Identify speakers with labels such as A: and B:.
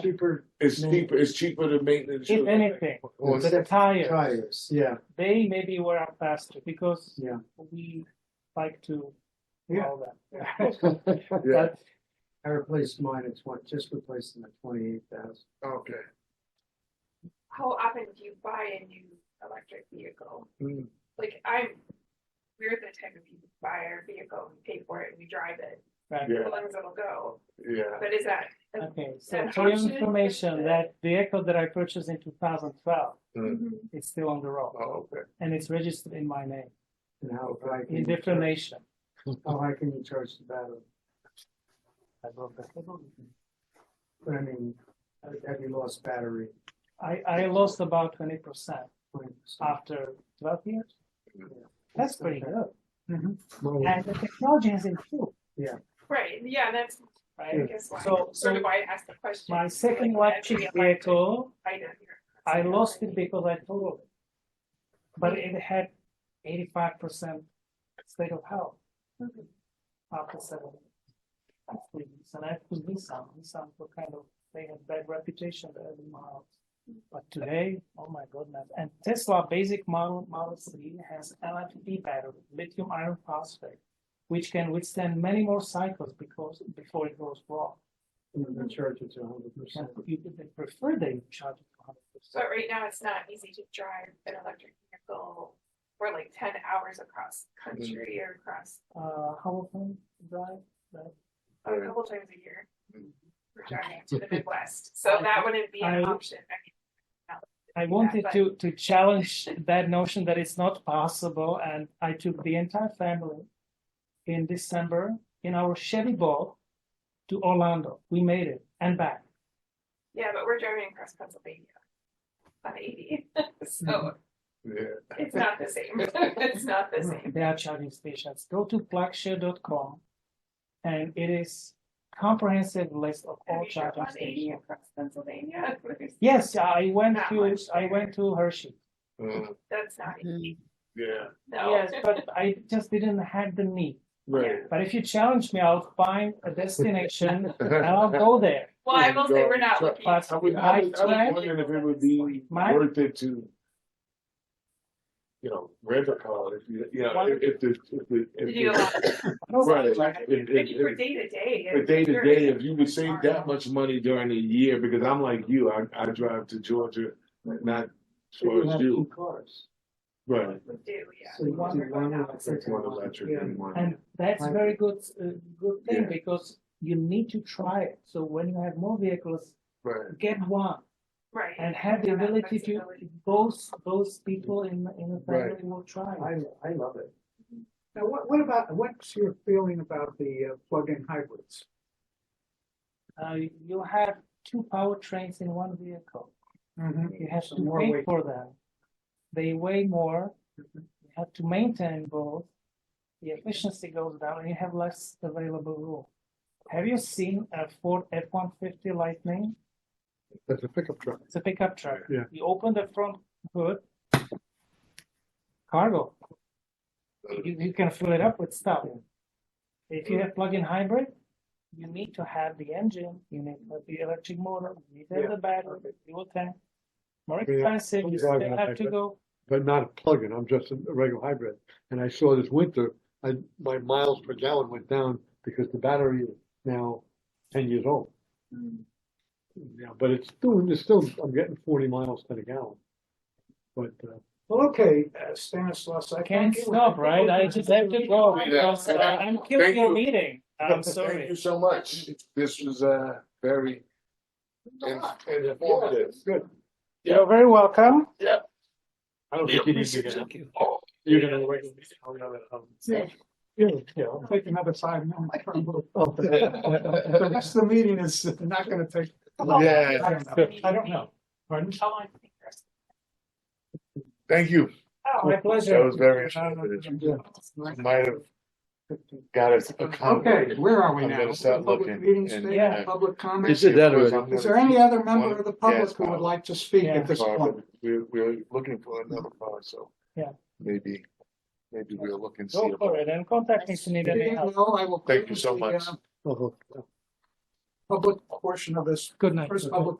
A: cheaper,
B: It's
A: Yeah.
B: cheaper, it's cheaper to maintenance.
A: if anything,
C: Or
A: the
C: the
A: tires,
C: tires, yeah,
A: they maybe wear out faster because
C: yeah.
A: we like to
C: Yeah.
A: all that.
B: Yeah,
C: But I replaced mine at twenty, just replaced them at twenty-eight thousand.
B: okay.
D: how often do you buy a new electric vehicle?
C: Mm.
D: Like I'm, we're the type of people who buy our vehicle, we pay for it, and we drive it,
A: Right.
B: Yeah,
D: as long as it'll go.
B: yeah.
D: But is that
A: Okay, so
D: That
A: for your
D: option?
A: information, that vehicle that I purchased in two thousand twelve,
D: Mhm.
A: it's still on the road.
B: Oh, okay.
A: And it's registered in my name,
C: And how high can
A: in
C: you
A: different
C: charge,
A: nation.
C: how high can you charge the battery?
A: I love that.
C: But I mean, have you lost battery?
A: I, I lost about twenty percent
C: 20%?
A: after twelve years. Ah, That's pretty good.
C: Mm-hmm.
A: Mm-hmm.
C: Well,
A: And the technology has improved,
D: right? Yeah, that's I
A: right?
D: guess why.
A: So-
D: sort
A: so
D: of why I asked the question.
A: My second
D: Like, as
A: electric
D: we elect-
A: vehicle,
D: I know you're-
A: I lost it because I totaled it. But it had eighty-five percent state of health after seven years. And I could be some, some were kind of, they had bad reputation, the early models. But today, oh my goodness, and Tesla basic model, Model 3 has LFP battery, lithium iron phosphate, which can withstand many more cycles because, before it goes wrong.
C: And the charge it to hundred
A: And
C: percent.
A: you they prefer they charge it to 100%.
D: But right now, it's not easy to drive an electric vehicle for like ten hours across country
A: Mm-hmm.
D: or across
A: uh, how often drive? That?
D: a
B: Right.
D: couple times a year. We're driving to the Midwest, so that wouldn't be an
A: Mm-hmm. I-
D: option. I mean,
A: I wanted
D: but-
A: to to challenge that notion that it's not possible, and I took the entire family in December in our Chevy Ball to Orlando. We made it and back.
D: Yeah, but we're driving across Pennsylvania on eighty, so
B: Yeah.
D: it's not the same. It's not the same.
A: There are charging stations. Go to plugshare.com, and it is comprehensive list
B: Mm-hmm.
A: of
D: Have
A: all
D: you driven
A: charging
D: on eighty
A: stations.
D: across Pennsylvania?
A: Yes, I went
D: Not
A: to
D: much
A: I
D: there.
A: went to Hershey.
B: Mm,
D: That's not easy,
B: Yeah,
D: no.
A: Yes, but I just didn't have the need.
B: right.
A: But if you challenge me, I'll find a destination and I'll go there.
D: Well, I will say we're not
B: So-
D: looking.
A: But
B: I was, I was, I was
A: Right.
B: wondering if it would be
A: My-
B: worth it to, you know, rent a car if you, you know, if, if the, if the,
D: To do a
B: if
D: lot of-
B: the, right. if-
D: Like,
B: if-
D: for
B: if-
D: day to day.
B: But
D: it's
B: day to
D: very-
B: day, if you would save that much money during the year, because I'm like you, I, I drive to Georgia, not
C: So you
B: towards
C: have
B: you.
C: two cars.
B: Right.
D: We do, yeah.
C: So you
A: One
C: do one
D: without-
C: electric
B: Take one
C: and
B: electric
C: yeah.
B: and one.
A: And that's very good, uh, good thing
B: Yeah.
A: because you need to try it. So when you have more vehicles,
B: Right.
A: get one
D: Right.
A: and have the
D: That
A: ability to
D: flexibility.
A: both both people in in a
B: Right.
A: family will try. it.
C: I, I love it.
E: Now, what, what about, what's your feeling about the uh, plug-in hybrids?
A: Uh, you have two powertrains in one vehicle. You have
E: So
A: to
E: more
A: pay
E: weight.
A: for them. They weigh more. You have to maintain both. The efficiency goes down, and you have less available room. Have you seen a Ford F one fifty Lightning?
C: That's a pickup truck.
A: It's a pickup truck.
C: Yeah.
A: You open the front hood, cargo. You, you can fill it up with stuff. If you have plug-in hybrid, you need to have the engine, you need to have the electric motor, you need to have the battery, fuel tank. More
F: Yeah.
A: expensive, you still
F: Plug-in
A: have to
F: hybrid.
A: go.
F: but not a plug-in. I'm just a regular hybrid. And I saw this winter, I, my miles per gallon went down because the battery is now ten years old. Yeah, but it's still, it's still, I'm getting forty miles to the gallon. But, uh,
E: Well, okay, uh, Stanislaus, I
A: Can't
E: thank you.
A: stop, right? I just have to go because uh, I'm killing
B: Thank
A: your
B: you.
A: meeting. I'm
B: Thank
A: sorry.
B: you so much. This was, uh, very in- informative.
F: good.
A: You're very welcome.
F: I don't think you need to get it.
B: Oh,
F: You're gonna wait. I'm gonna, um, Yeah, yeah.
E: I'll take another five minutes. from you. The
F: I'll-
E: rest of the meeting is not gonna take.
B: Yeah,
E: I don't know. I don't know. Pardon?
D: How long do you think the rest-
B: thank you.
E: Oh, my pleasure.
B: That was very informative. Might have got us a comment.
E: Okay, where are we
B: I'm
E: now?
B: gonna start
E: Public
B: looking
E: Meeting
B: and-
E: space,
A: Yeah.
E: public comment.
F: Is it that already?
E: Is there any other member of the public who would like to speak
A: Yeah.
E: at this point?
B: Barbara, We're, we're looking for another car, so.
A: Yeah.
B: Maybe, maybe we'll look and see.
A: Go for it and contact me if you need any help.
E: No, I will.
F: Uh-huh.
B: Thank you so much.
E: Uh,
F: I'll-
E: public portion of this,
A: Good night.
E: first public